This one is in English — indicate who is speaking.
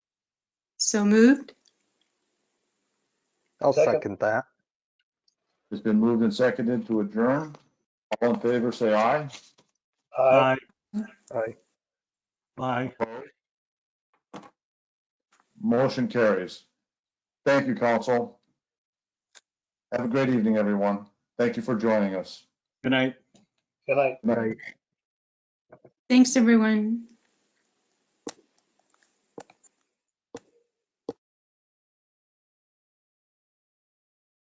Speaker 1: So moved?
Speaker 2: I'll
Speaker 3: Second.
Speaker 2: second that.
Speaker 4: It's been moved and seconded to adjourn. All in favor, say aye.
Speaker 3: Aye.
Speaker 2: Aye.
Speaker 5: Bye.
Speaker 4: Motion carries. Thank you, council. Have a great evening, everyone. Thank you for joining us.
Speaker 5: Good night.
Speaker 3: Good night.
Speaker 4: Good night.
Speaker 1: Thanks, everyone.